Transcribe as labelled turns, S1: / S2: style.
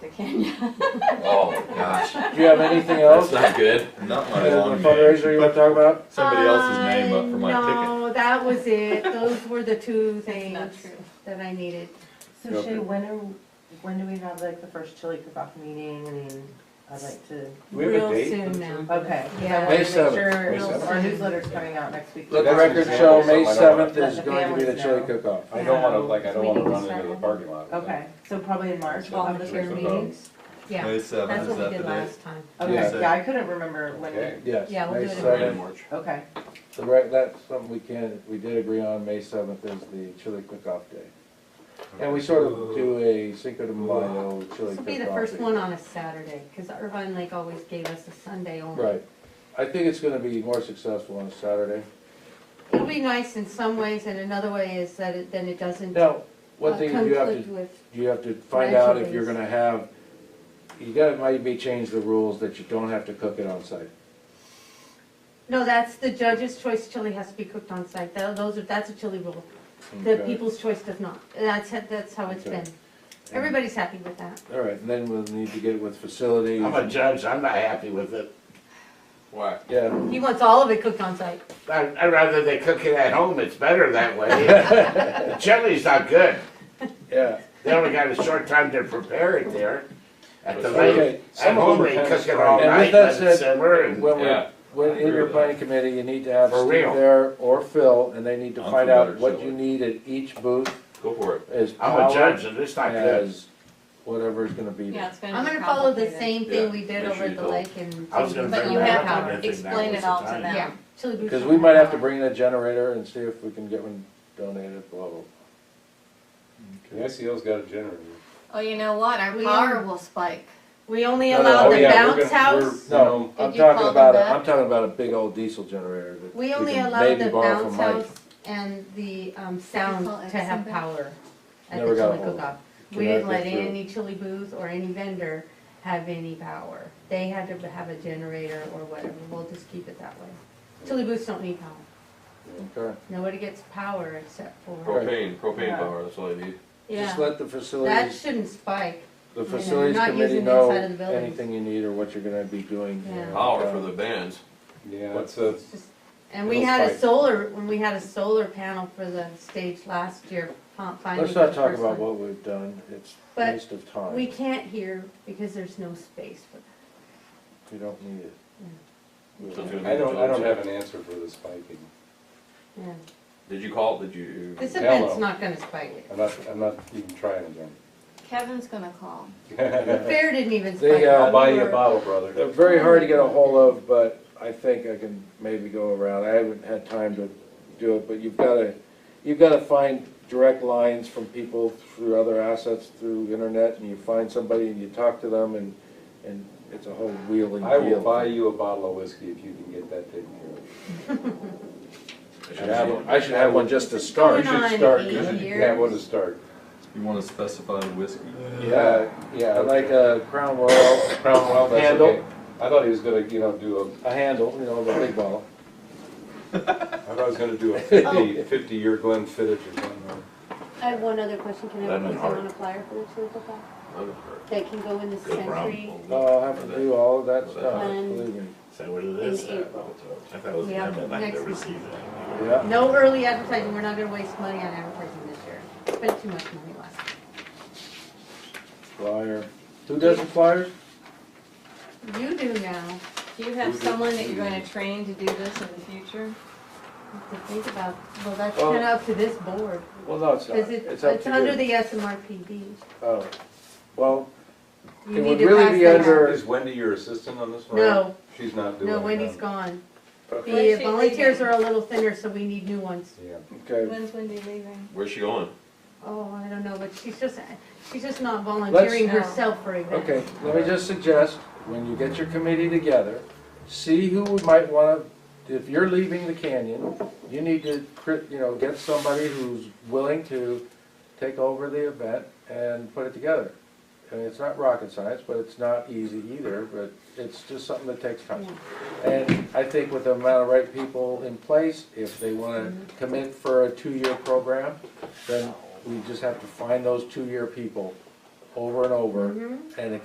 S1: Kenya.
S2: Oh, gosh,
S3: Do you have anything else?
S2: that's not good.
S4: Not
S3: Do
S4: my
S3: you have a
S4: long name.
S3: fundraiser you wanna talk about?
S4: Somebody else's name up for my
S5: Uh,
S4: ticket.
S5: No, that was it. Those were the two things
S1: Not true.
S5: that I needed.
S6: So Shay, when are, when do we have like the first chili cook-off meeting? I mean, I'd like to,
S3: We have a date
S1: Real
S3: for
S1: soon now.
S6: okay. 'cause
S5: Yeah.
S6: I wanna
S3: May
S6: make
S3: 7th,
S6: sure-
S3: May 7th.
S6: Our newsletter's coming out next week.
S3: Let the
S4: That's an
S3: record
S4: example
S3: show,
S4: of
S3: May
S4: something I don't want.
S3: seventh is
S6: Let the
S3: going to be the
S6: families
S3: chili
S6: know.
S3: cook-off.
S4: I don't wanna,
S6: So,
S4: like, I don't
S6: we
S4: wanna
S6: need to
S4: run into
S6: start
S4: the
S6: it.
S4: parking lot. with
S6: Okay, so probably in March. we'll have the
S1: Volunteer
S4: Sure.
S6: first-
S1: meetings,
S4: that.
S1: yeah,
S4: May
S2: uh,
S4: seventh,
S1: that's
S4: is
S1: what we
S4: that the
S1: did
S4: date?
S1: last time.
S4: Yeah.
S6: Okay, yeah, I couldn't remember
S4: Okay.
S6: when,
S3: Yes,
S1: Yeah, we'll
S3: May
S1: do it in
S3: seventh.
S6: okay.
S3: So right, that's something we can, we did agree on, May seventh is the chili cook-off day. And we sort of do a Cinco de Mayo chili
S1: This will
S3: cook-off.
S1: be the first
S3: day.
S1: one on a Saturday, because Irvine Lake always gave us a Sunday only.
S3: Right. I think it's gonna be more successful on a Saturday.
S1: It'll be nice in some ways, and another way is that it, then it doesn't uh,
S3: Now, one thing you have to
S1: conflict with,
S3: You have to find out if
S1: Measure
S3: you're
S1: these.
S3: gonna have, you gotta maybe change the rules that you don't have to cook it on site.
S1: no, that's the judge's choice chili has to be cooked on site, Tho- those are, that's a chili rule. The
S3: Okay.
S1: people's choice does not, that's, it- that's how it's
S3: Okay.
S1: been. Everybody's happy with that.
S3: All right, and then we'll need to get with facilities.
S7: I'm a judge, I'm not happy with it.
S2: Why?
S3: Yeah,
S1: He wants all of it cooked on site.
S7: I, I'd rather they cook it at home, it's better that way. The Chili's not good,
S3: yeah.
S7: they only got a short time to prepare it there. At the
S3: Okay,
S7: lake, at
S3: some of
S7: home,
S3: them are
S7: they
S3: kinda
S7: cook it all
S3: strong. And with
S7: night,
S3: that
S7: let it
S3: said,
S7: simmer and.
S3: When
S2: Yeah.
S3: we're, when
S2: I
S3: in your
S2: agree
S3: planning committee, you need to have
S7: For
S3: Steve
S7: real.
S3: there or Phil, and they need to
S4: I'm
S3: find
S4: for
S3: out
S4: better
S3: what
S4: chili.
S3: you need at each booth
S2: Go for it.
S3: as
S7: I'm a
S3: power,
S7: judge and it's not good.
S3: as whatever is gonna be
S5: Yeah,
S3: there.
S5: it's gonna
S1: I'm
S5: be
S1: gonna follow the
S5: complicated.
S1: same
S2: Yeah,
S1: thing we
S2: make
S1: did over
S2: sure
S1: at
S2: you
S1: the
S2: told.
S1: lake and.
S7: I was gonna
S1: But
S7: bring
S1: you
S7: that
S1: have
S7: up, I
S1: power.
S7: didn't think that
S5: Explain
S7: was
S5: it
S7: the
S5: all to
S7: time.
S5: them.
S1: Yeah, chili boots.
S3: Cause
S1: are
S3: we might have to
S1: power.
S3: bring in a generator and see if we can get one donated, blah, blah.
S8: The SEL's got a generator.
S5: Oh, you know what? Our
S1: We-
S5: power will spike.
S1: We only
S3: No, no,
S1: allow
S3: oh,
S1: the
S3: yeah,
S1: bounce house,
S3: No, I'm
S5: Did you call
S3: talking
S5: them
S3: about, a
S5: that?
S3: am talking about a big old diesel generator that we
S1: we only
S3: can
S1: allow
S3: maybe
S1: the
S3: borrow
S1: bounce
S3: from Mike.
S1: house and the, um,
S5: Call
S1: sound
S5: it
S1: to have
S5: something.
S1: power at
S3: Never
S1: the
S3: got
S1: chili
S3: a hold of
S1: cook-off.
S3: it.
S1: We
S3: Cannot
S1: didn't let
S3: get through.
S1: any chili booth or any vendor have any power. They had to have a generator or whatever, we'll just keep it that way. Chili booths don't need power,
S3: Okay,
S1: nobody gets power except for,
S2: Propane, propane
S6: Yeah.
S2: power, that's all I need.
S1: yeah,
S3: just let the
S1: that
S3: facilities,
S1: shouldn't spike.
S3: the
S1: you know,
S3: facilities
S1: not
S3: committee
S1: using the
S3: know
S1: inside of the building.
S3: anything you need or what you're gonna be doing. you
S1: Yeah.
S3: know,
S2: Power
S3: uh,
S2: for the bands.
S8: Yeah, that's a,
S1: It's just- And we
S8: It'll
S1: had a
S8: spike.
S1: solar, when we had a solar panel for the stage last year, fin- finally.
S3: Let's
S1: for
S3: not
S1: the
S3: talk
S1: first
S3: about
S1: one.
S3: what we've done, it's
S1: But
S3: waste of time,
S1: We
S3: we
S1: can't hear because there's no space for that.
S3: don't need it. We
S2: So it's
S3: don't-
S2: gonna be
S8: I don't, I don't
S2: July.
S8: have an answer for the spiking.
S1: Yeah.
S2: Did you call, did you?
S1: This
S8: Hello.
S1: event's not gonna spike it.
S8: I'm not, I'm not even trying again.
S5: Kevin's gonna call.
S1: The fair didn't even
S3: They,
S1: spike it.
S3: uh,
S8: I'll buy you a
S1: We
S8: bottle, brother.
S3: They're very hard to get a hold of, but I think I can maybe go around, I haven't had time to do it, but you've gotta, you've gotta find direct lines from people through other assets, through internet, and you find somebody and you talk to them and, and it's a whole wheeling
S8: I will
S3: deal.
S8: buy you a bottle of whiskey if you can get that taken care
S3: I should have one- I should have one just to start.
S1: Going on
S8: should start,
S1: eight
S8: you of. You
S1: years.
S8: have one to start.
S4: You want a specified whiskey?
S3: Yeah,
S8: yeah.
S3: I like a Crown Royal,
S8: Crown Royal, that's
S3: Handle.
S8: okay. I thought he was gonna, you know, do
S3: a handle, you know, the big bottle.
S8: a, I thought he was gonna do a fifty, fifty-year Glenn Fittich or something.
S1: I have one other question, can I
S2: Lemon
S1: put
S2: heart.
S1: on a flyer for the chili cook-off?
S2: Lemon heart.
S1: That can go in the
S2: Good brown.
S1: century
S3: Oh, I'll have to do all of that stuff,
S1: Um,
S3: believe me.
S9: So what it
S1: in
S9: is, uh,
S1: April.
S9: I thought it was
S1: We have
S9: them that
S1: next
S9: like to
S1: month.
S9: receive that.
S3: Yeah,
S1: No early advertising, we're not gonna waste money on advertising this year. Spent too much money last year.
S3: flyer. Who doesn't flyers?
S1: You do now,
S5: Do you have someone that you're gonna train to do this in the future?
S1: You have to think about, well, that's
S3: Well-
S1: kinda up to this board,
S3: Well, no, it's not.
S1: cause it-
S3: It's up
S1: it's
S3: to
S1: under
S3: you.
S1: the SMRPD.
S3: Oh, well,
S1: You
S3: It
S1: need
S3: would
S1: to
S3: really
S1: pass
S3: be
S1: that
S3: under-
S1: out.
S8: Is Wendy your assistant on this one?
S1: No,
S8: She's not doing it.
S1: no, Wendy's
S8: huh?
S1: gone.
S3: okay,
S1: The
S5: When's she
S1: volunteers
S5: leaving?
S1: are a little thinner, so we need new ones.
S8: Yeah.
S3: okay.
S5: When's Wendy leaving?
S2: Where's she going?
S1: Oh, I don't know, but she's just, she's just not volunteering
S5: Let's-
S1: herself for events.
S3: Okay, let me just suggest, when you get your committee together, see who would might wanna, if you're leaving the canyon, you need to, cri- you know, get somebody who's willing to take over the event and put it together. I mean, it's not rocket science, but it's not easy either, but it's just something that takes time. And I think with the amount of right people in place, if they wanna commit for a two-year program, then we just have to find those two-year people over and over,
S1: Mhm.
S3: and